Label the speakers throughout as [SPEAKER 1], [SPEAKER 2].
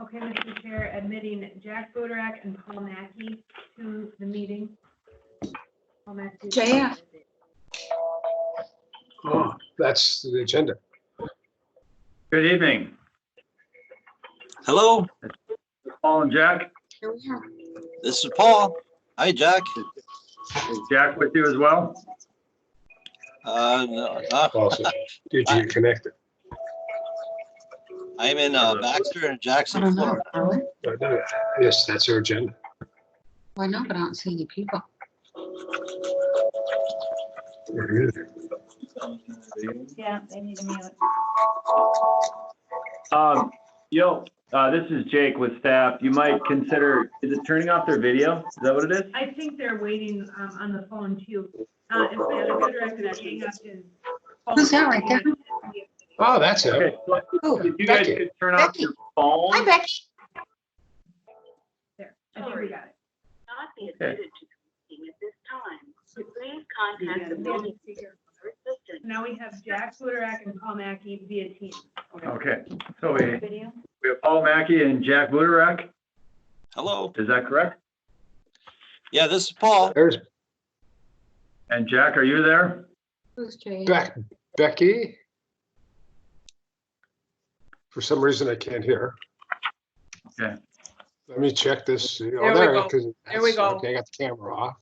[SPEAKER 1] Okay, Mr. Chair, admitting Jack Bodak and Paul Mackey to the meeting. Paul Mackey.
[SPEAKER 2] JF.
[SPEAKER 3] Oh, that's the agenda.
[SPEAKER 4] Good evening,
[SPEAKER 5] Hello,
[SPEAKER 4] Paul and Jack.
[SPEAKER 2] Here we are.
[SPEAKER 5] this is Paul. Hi, Jack.
[SPEAKER 4] Is Jack with you as well?
[SPEAKER 5] Uh, no, uh,
[SPEAKER 3] Also, did you connect it?
[SPEAKER 5] I'm in uh, Baxter and
[SPEAKER 2] I
[SPEAKER 5] Jackson,
[SPEAKER 2] don't know.
[SPEAKER 5] Florida.
[SPEAKER 2] Are we?
[SPEAKER 3] No, Uh, no, Yes, that's our agenda.
[SPEAKER 2] Well, I know, but I don't see any people.
[SPEAKER 3] Oh,
[SPEAKER 6] Yeah, they need to mute.
[SPEAKER 4] Um, yo, uh, this is Jake with staff. You might consider, is it turning off their video? Is that what it is?
[SPEAKER 1] I think they're waiting um, on the phone too. Uh, If they have a good record, they have to.
[SPEAKER 2] Who's that right there?
[SPEAKER 3] Oh, that's it.
[SPEAKER 4] Okay, so
[SPEAKER 2] Oh,
[SPEAKER 4] if you guys
[SPEAKER 3] Becky.
[SPEAKER 4] could turn off your
[SPEAKER 2] hi,
[SPEAKER 4] phone.
[SPEAKER 2] Becky.
[SPEAKER 1] I think we got it.
[SPEAKER 7] not be admitted to the meeting at this time. Please contact the building for assistance.
[SPEAKER 1] Now we have Jack Bodak and Paul Mackey via team.
[SPEAKER 4] Okay, so we,
[SPEAKER 6] Video?
[SPEAKER 4] we have Paul Mackey and Jack Budarak.
[SPEAKER 5] Hello.
[SPEAKER 4] Is that correct?
[SPEAKER 5] Yeah, this is Paul.
[SPEAKER 3] There's
[SPEAKER 4] And Jack, are you there?
[SPEAKER 2] Who's Jay?
[SPEAKER 3] Beck, Becky. For some reason, I can't hear. her.
[SPEAKER 4] Okay.
[SPEAKER 3] Let me check this. Oh, There
[SPEAKER 8] There we go.
[SPEAKER 3] There
[SPEAKER 8] we go.
[SPEAKER 3] Okay, I got the camera off.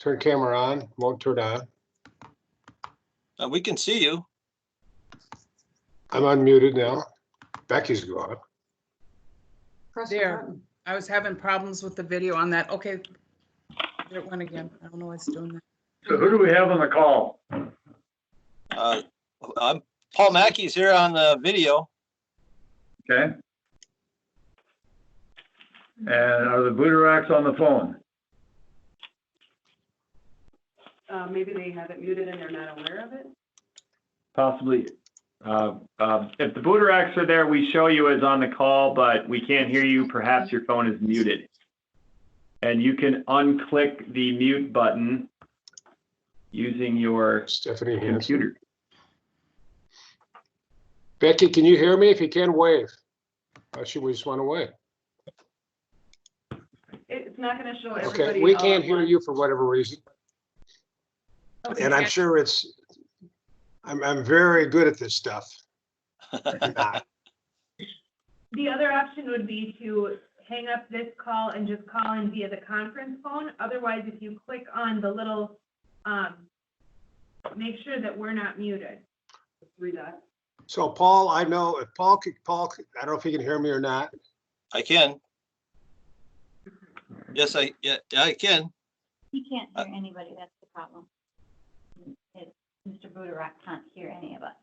[SPEAKER 3] Turn camera on, won't turn on.
[SPEAKER 5] Uh, we can see you.
[SPEAKER 3] I'm unmuted now. Becky's gone.
[SPEAKER 2] Press the
[SPEAKER 8] There.
[SPEAKER 2] button.
[SPEAKER 8] I was having problems with the video on that. Okay. There it went again. I don't know what's doing that.
[SPEAKER 4] So who do we have on the call?
[SPEAKER 5] Uh, I'm Paul Mackey's here on the video.
[SPEAKER 4] Okay? And are the Budaraks on the phone?
[SPEAKER 9] Uh, maybe they have it muted and they're not aware of it.
[SPEAKER 4] possibly, uh, um, if the Booteracks are there, we show you as on the call, but we can't hear you. Perhaps your phone is muted. And you can unclick the mute button using your
[SPEAKER 3] Stephanie Hansen.
[SPEAKER 4] computer.
[SPEAKER 3] Becky, can you hear me? If you can, wave. Oh, she just went away.
[SPEAKER 9] It- It's not gonna show everybody.
[SPEAKER 3] Okay, we
[SPEAKER 1] uh,
[SPEAKER 9] all
[SPEAKER 3] can't
[SPEAKER 9] at
[SPEAKER 3] hear
[SPEAKER 9] once.
[SPEAKER 3] you for whatever reason. And I'm sure it's, I'm, I'm very good at this stuff. I'm not.
[SPEAKER 1] The other option would be to hang up this call and just call in via the conference phone. Otherwise, if you click on the little, um, make sure that we're not muted.
[SPEAKER 9] Three dots.
[SPEAKER 3] So Paul, I know if Paul, could- Paul, could- I don't know if he can hear me or not.
[SPEAKER 5] I can. Yes, I, yeah, I can.
[SPEAKER 6] He can't hear anybody, that's the problem. It- Mr. Budarak can't hear any of us.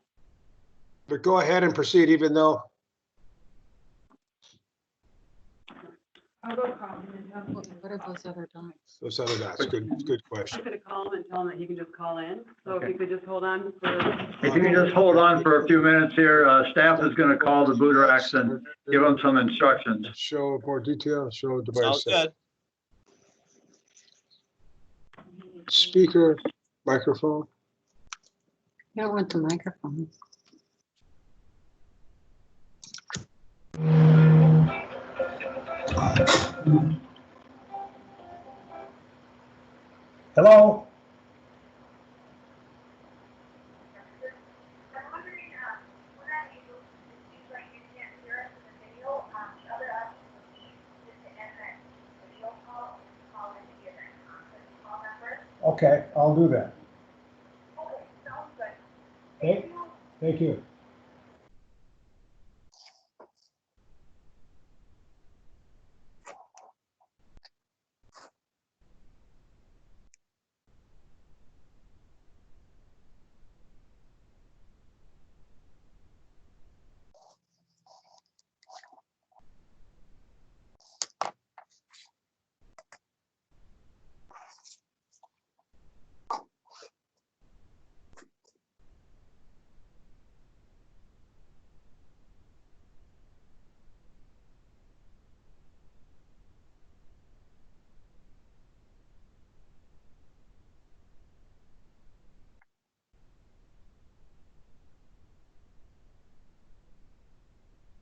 [SPEAKER 3] But go ahead and proceed even though,
[SPEAKER 1] I'll go call him and tell him.
[SPEAKER 2] What what are those other dots?
[SPEAKER 3] those other guys, good, good
[SPEAKER 9] I
[SPEAKER 3] question.
[SPEAKER 9] could have called him and tell him that he can just call in. So if
[SPEAKER 4] Okay.
[SPEAKER 9] you could just hold on for,
[SPEAKER 4] If you can just hold on for a few minutes here, uh, staff is going to call the Booteracks and give them some instructions.
[SPEAKER 3] Show more detail, show
[SPEAKER 5] Sounds
[SPEAKER 3] device,
[SPEAKER 5] good.
[SPEAKER 3] speaker, microphone.
[SPEAKER 2] Yeah, I went to microphone.
[SPEAKER 10] Hello?
[SPEAKER 7] um,
[SPEAKER 10] Okay, I'll do that. Okay, sounds good. Thank you.